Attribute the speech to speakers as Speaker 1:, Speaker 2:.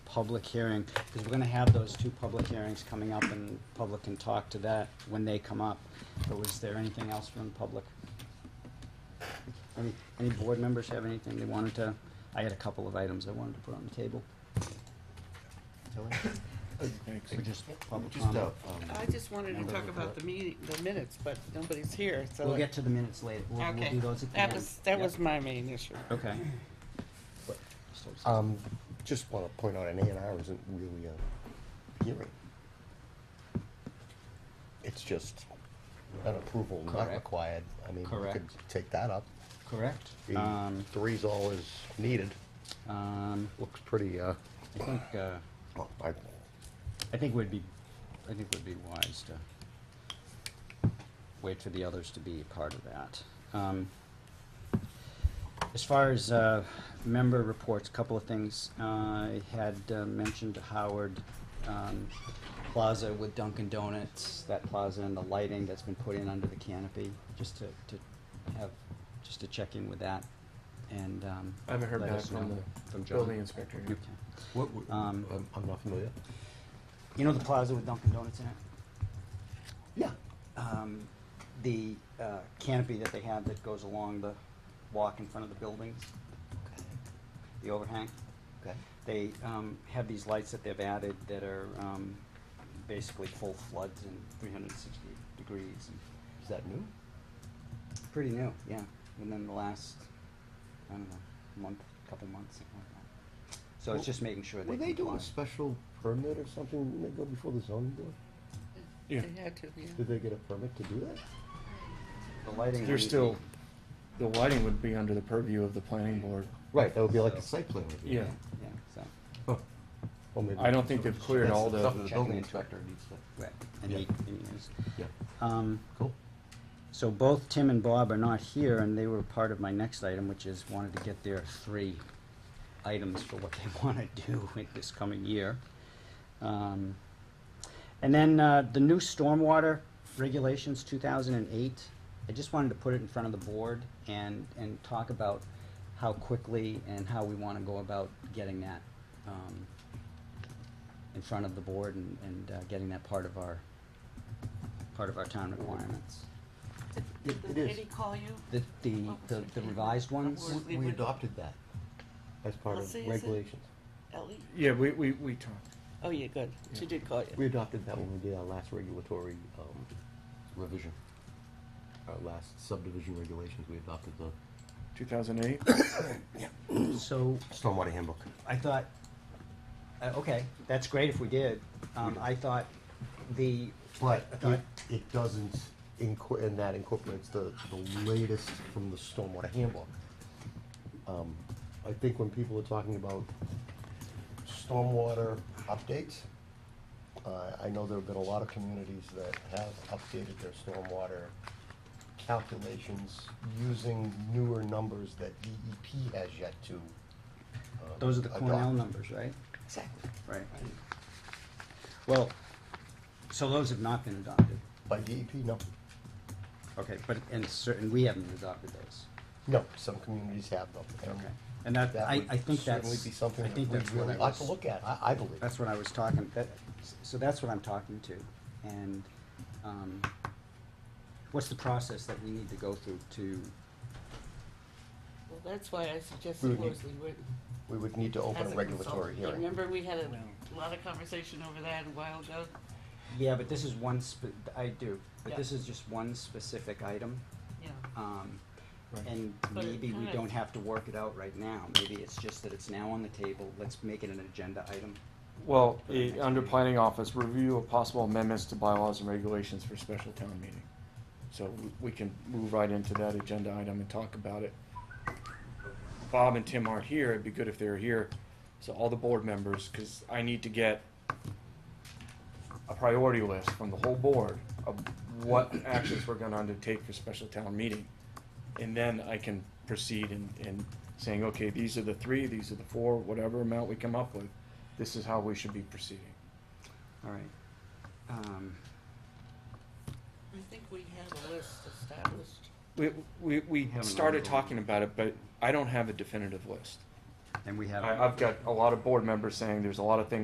Speaker 1: public hearing, because we're gonna have those two public hearings coming up, and public can talk to that when they come up. But was there anything else from the public? Any, any board members have anything they wanted to, I had a couple of items I wanted to put on the table.
Speaker 2: Thanks.
Speaker 1: Or just public
Speaker 3: Just, uh,
Speaker 1: comment.
Speaker 3: um,
Speaker 4: I just wanted to
Speaker 3: Number
Speaker 4: talk
Speaker 3: of
Speaker 4: about the meeting, the minutes, but nobody's here, so.
Speaker 1: We'll get to the minutes later, we'll, we'll
Speaker 4: Okay.
Speaker 1: do those at the end.
Speaker 4: That was, that
Speaker 1: Yep.
Speaker 4: was my main issue.
Speaker 1: Okay.
Speaker 3: um, just wanna point out, an A and R isn't really a hearing. It's just an approval not
Speaker 1: Correct.
Speaker 3: required, I mean, we could
Speaker 1: Correct.
Speaker 3: take that up.
Speaker 1: Correct.
Speaker 3: The
Speaker 1: Um,
Speaker 3: Three's all is needed,
Speaker 1: um,
Speaker 3: looks pretty, uh,
Speaker 1: I think, uh,
Speaker 3: well, I,
Speaker 1: I think would be, I think would be wise to wait for the others to be a part of that. Um, As far as, uh, member reports, a couple of things, uh, I had uh, mentioned Howard, um, Plaza with Dunkin' Donuts, that plaza and the lighting that's been put in under the canopy, just to, to have, just to check in with that, and, um.
Speaker 5: I haven't heard
Speaker 1: let
Speaker 5: back
Speaker 1: us
Speaker 5: from
Speaker 1: know.
Speaker 5: the
Speaker 1: From John?
Speaker 5: building inspector.
Speaker 1: Okay.
Speaker 3: what, w-
Speaker 1: Um,
Speaker 3: I'm, I'm not familiar.
Speaker 1: You know the plaza with Dunkin' Donuts in it?
Speaker 3: Yeah.
Speaker 1: um, the uh, canopy that they have that goes along the walk in front of the buildings, the overhang.
Speaker 3: Okay.
Speaker 1: They um, have these lights that they've added that are um, basically full floods and 360 degrees. And
Speaker 3: Is that new?
Speaker 1: pretty new, yeah. Within the last, I don't know, month, couple months, something like that. So
Speaker 3: Well,
Speaker 1: it's just making sure they
Speaker 3: Were they doing
Speaker 1: comply.
Speaker 3: a special permit or something, didn't they go before the zoning board?
Speaker 5: Yeah.
Speaker 4: They had to, yeah.
Speaker 3: Did they get a permit to do that?
Speaker 1: The lighting.
Speaker 5: They're
Speaker 1: would be-
Speaker 5: still, the lighting would be under the purview of the planning board.
Speaker 3: Right, that would be like a
Speaker 1: So-
Speaker 3: site plan review.
Speaker 5: Yeah.
Speaker 1: Yeah, so,
Speaker 3: Well, maybe-
Speaker 5: I don't think they've cleared all
Speaker 3: That's something
Speaker 5: the,
Speaker 3: The building
Speaker 1: Checking.
Speaker 3: inspector needs to,
Speaker 1: right, and
Speaker 3: Yeah.
Speaker 1: he, and he is.
Speaker 3: yeah,
Speaker 1: Um,
Speaker 3: cool.
Speaker 1: So both Tim and Bob are not here, and they were part of my next item, which is wanted to get their three items for what they want to do in this coming year. Um, And then uh, the new stormwater regulations, two thousand and eight, I just wanted to put it in front of the board and, and talk about how quickly and how we want to go about getting that um, in front of the board and, and uh, getting that part of our, part of our town requirements.
Speaker 3: It- it
Speaker 4: Did
Speaker 3: is.
Speaker 4: he call you?
Speaker 1: The, the,
Speaker 4: What was
Speaker 1: the
Speaker 4: her
Speaker 1: the
Speaker 4: name?
Speaker 1: revised ones,
Speaker 4: Or
Speaker 3: We-
Speaker 4: we
Speaker 3: We
Speaker 4: would-
Speaker 3: adopted that as part
Speaker 4: Let's
Speaker 3: of
Speaker 4: see, is it-
Speaker 3: regulations.
Speaker 4: Ellie?
Speaker 5: yeah, we, we, we talked.
Speaker 4: Oh, yeah, good. She
Speaker 5: Yeah.
Speaker 4: did call
Speaker 3: We
Speaker 4: you.
Speaker 3: adopted that when we did our last regulatory um, revision. Our last subdivision regulations, we adopted the
Speaker 5: Two thousand eight?
Speaker 1: so
Speaker 3: stormwater handbook.
Speaker 1: I thought, uh, okay, that's great if we did. Um, I thought the,
Speaker 3: But
Speaker 1: I thought-
Speaker 3: it, it doesn't, inco- and that incorporates the, the latest from the stormwater handbook. Um, I think when people are talking about stormwater updates, uh, I know there have been a lot of communities that have updated their stormwater calculations using newer numbers that DEP has yet to. uh,
Speaker 1: those are the Cornell
Speaker 3: adopt.
Speaker 1: numbers, right?
Speaker 4: Exactly.
Speaker 1: Right. Well, so those have not been adopted.
Speaker 3: By DEP, no.
Speaker 1: Okay, but, and certain, we haven't adopted those.
Speaker 3: No, some communities have them. and
Speaker 1: Okay. And that,
Speaker 3: Mm. That
Speaker 1: I,
Speaker 3: would
Speaker 1: I think that's,
Speaker 3: certainly be something
Speaker 1: I
Speaker 3: that we
Speaker 1: think that's what
Speaker 3: really
Speaker 1: I
Speaker 3: ought to
Speaker 1: was,
Speaker 3: look at, I, I believe.
Speaker 1: that's what I was talking, that, so that's what I'm talking to. And, um, what's the process that we need to go through to
Speaker 4: Well, that's why I
Speaker 3: We
Speaker 4: suggested
Speaker 3: would need-
Speaker 4: Worsley Witten.
Speaker 3: We would need to open
Speaker 4: as
Speaker 3: a
Speaker 4: a
Speaker 3: regulatory
Speaker 4: consultant. You
Speaker 3: hearing.
Speaker 4: Remember, we had a lot of conversation over that a while ago?
Speaker 1: Yeah, but this is one spe- I do, but
Speaker 4: Yeah.
Speaker 1: this is just one specific item,
Speaker 4: Yeah.
Speaker 1: um,
Speaker 5: Right.
Speaker 1: and
Speaker 4: But it
Speaker 1: maybe we
Speaker 4: kinda-
Speaker 1: don't have to work it out right now, maybe it's just that it's now on the table, let's make it an agenda item.
Speaker 5: Well, it, under planning office, review of possible amendments to bylaws and regulations for special town meeting. So we- we can move right into that agenda item and talk about it. Bob and Tim aren't here, it'd be good if they were here, so all the board members, cause I need to get a priority list from the whole board of what actions we're gonna undertake for special town meeting. And then I can proceed in, in saying, okay, these are the three, these are the four, whatever amount we come up with, this is how we should be proceeding.
Speaker 1: Alright, um,
Speaker 4: I think we had a list established.
Speaker 5: We, we, we
Speaker 1: Haven't
Speaker 5: started
Speaker 1: really-
Speaker 5: talking about it, but I don't have a definitive list.
Speaker 1: and we have.
Speaker 5: I, I've got a lot of board members saying there's a lot of things